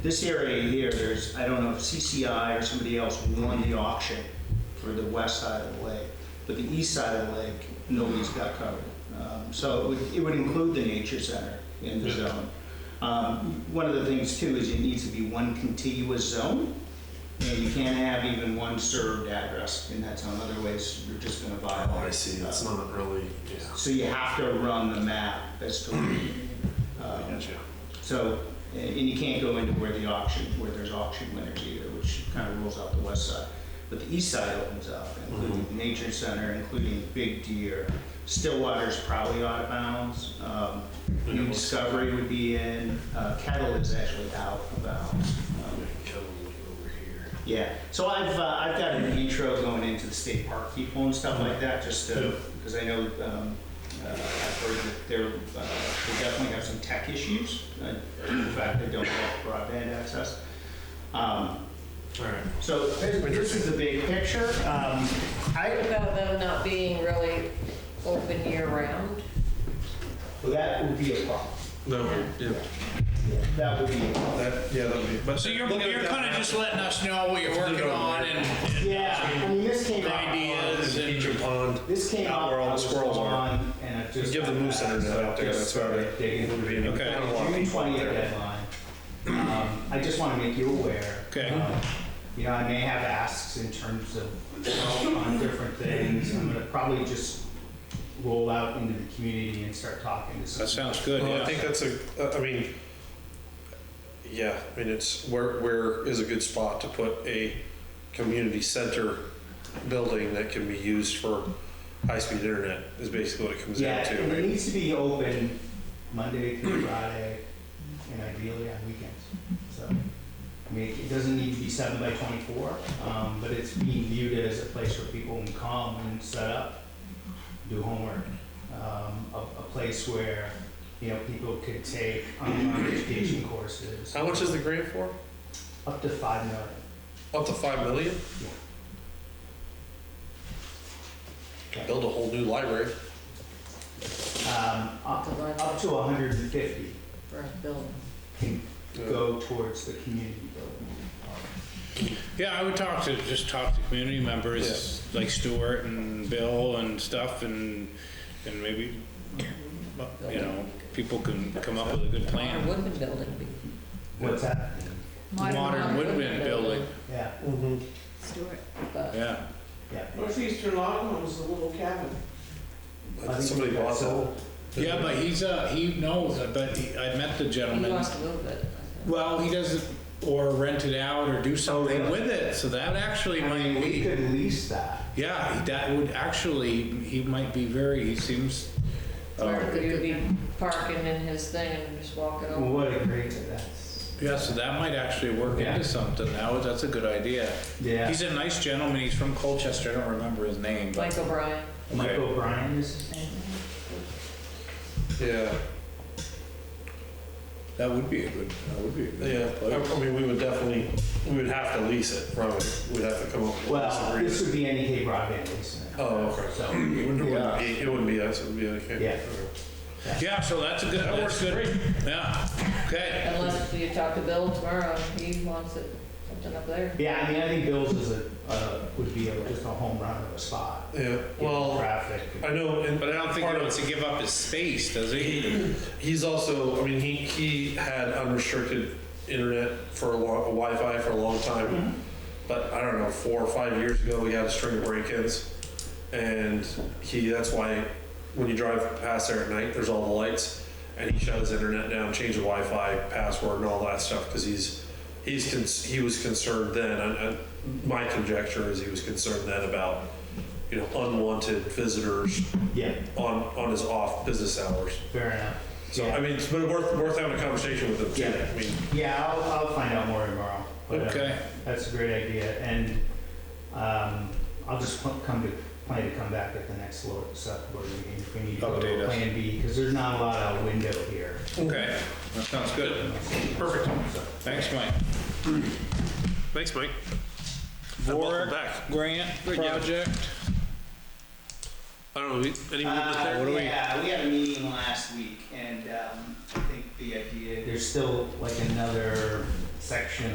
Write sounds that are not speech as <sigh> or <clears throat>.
This area here, there's, I don't know if CCI or somebody else won the auction for the west side of the lake, but the east side of the lake, nobody's got covered. Um, So it would, it would include the nature center in the Yeah. zone. Um, One of the things too is it needs to be one contiguous zone. And you can't have even one served address in that zone, otherwise you're just gonna violate. Oh, I see, it's uh, not really, yeah. So you have to run the map as to, I um, gotcha. so, eh, and you can't go into where the auction, where there's auction winners either, which kind of rules out the west side. But the east side opens up, including the nature center, including Big Deer. Stillwater's probably out of bounds. Um, New Discovery would be in, uh, Kettle is actually out of bounds. Um, Kettle Lake over here. Yeah, so I've, uh, I've got an intro going into the state park people and stuff like that, just to, Yeah. because I know, um, uh, I've heard that they're, uh, they definitely have some tech issues. uh, In fact, they don't have broadband access. Um, All right. So this is the big picture. Um, I, About them not being really open year round. well, that would be a problem. No, yeah. That would be a problem. That, yeah, that would be. But So you're, Look at you're that kind of map. just letting us know what you're working on and Yeah, I mean, this came up. ideas Egypt and, Pond. This came Out up. where all the I was squirrels are. on, And I just. Give the moose center that out there, that's where they- Digging. Okay. Kind of long. June 20th deadline. Um, I just want to make you aware. Okay. Um, You know, I may have asks in terms of, help on different things. I'm going to probably just roll out into the community and start talking to some. that sounds good, Well, I yeah. think that's a, I- I mean, yeah, I mean, it's, where, where is a good spot to put a community center building that can be used for high-speed internet is basically what it comes down Yeah, to. and it right? needs to be open Monday through Friday and ideally on weekends. So, I mean, it doesn't need to be seven by twenty-four, um, but it's being viewed as a place where people can come and set up, do homework. Um, a, a place where, you know, people could take online education courses. How much is the grant for? Up to five million. Up to five million? Yeah. Build a whole new library. Um, up, up to hundred and fifty For a building. can go towards the community building. Yeah, I would talk to, just talk to community members like Stuart and Bill and stuff and, and maybe, you know, people can come up with a good Modern plan. Woodman Building. be- What's that? Modern Woodwind Building, Yeah, Stuart. But yeah. yeah. Northeastern Longhorn was a little cabin. I think Somebody that's bought that. all. Yeah, but he's, uh, he knows, I bet, he- I met the he gentleman. lost a little bit. Well, he doesn't, or rent it out or do something Oh, really? with it, so that actually I mean, might we be, could lease that. yeah, that would actually, he might be very, he seems, Oh, uh, Where could you be parking in his thing and just walking over? Oh, What a great, that's, yeah, so that might actually work Yeah. into something, that was, that's a good idea. yeah. He's a nice gentleman, he's from Colchester, I don't remember his name, but, Mike O'Brien. Mike O'Brien is his name? Yeah, that would be a good, that would be a yeah. good I place. I mean, we would definitely, we would have to lease it from it. We'd have to come up with a lease Well, agreement. this would be NEK broadband leasing. it. Oh, okay. <clears throat> So, It wouldn't, it Yeah. wouldn't be, it wouldn't be us, it would be like. Yeah. Yeah, so that's a good, That works that's good, yeah, okay. Unless you talk to Bill tomorrow, he wants it, something up there. yeah, I mean, I think Bill's is a, uh, would be a- just a home run of a spot. Yeah, Given well, Traffic. I know, and. But I don't think part he of- wants to give up his space, does he? He, he's also, I mean, he, he had unrestricted internet for a long, Wi-Fi for a long time. But I don't know, four or five years ago, we had a string of break-ins. And he, that's why when you drive past there at night, there's all the lights. And he shut his internet down, changed the Wi-Fi password and all that stuff because he's, he's, cons- he was concerned then. And, and my conjecture is he was concerned then about, you know, unwanted visitors Yeah, on, on his off business hours. fair enough. So, Yeah. I mean, it's been worth, worth having a conversation with them too. Yeah. I mean, Yeah, I'll, I'll find out more tomorrow. but, uh, Okay. That's a great idea, and, um, I'll just pl- come to, plan to come back at the next lo- select board meeting if we need to go Update to us. Plan B, because there's not a lot of window here. Okay, that sounds good. Perfect. Thanks, Mike. Thanks, Mike. Warwick back. Grant job. Project. I don't know, we- any movement Uh, there? Yeah, we had a meeting last week, and um, I think the idea, there's still like another section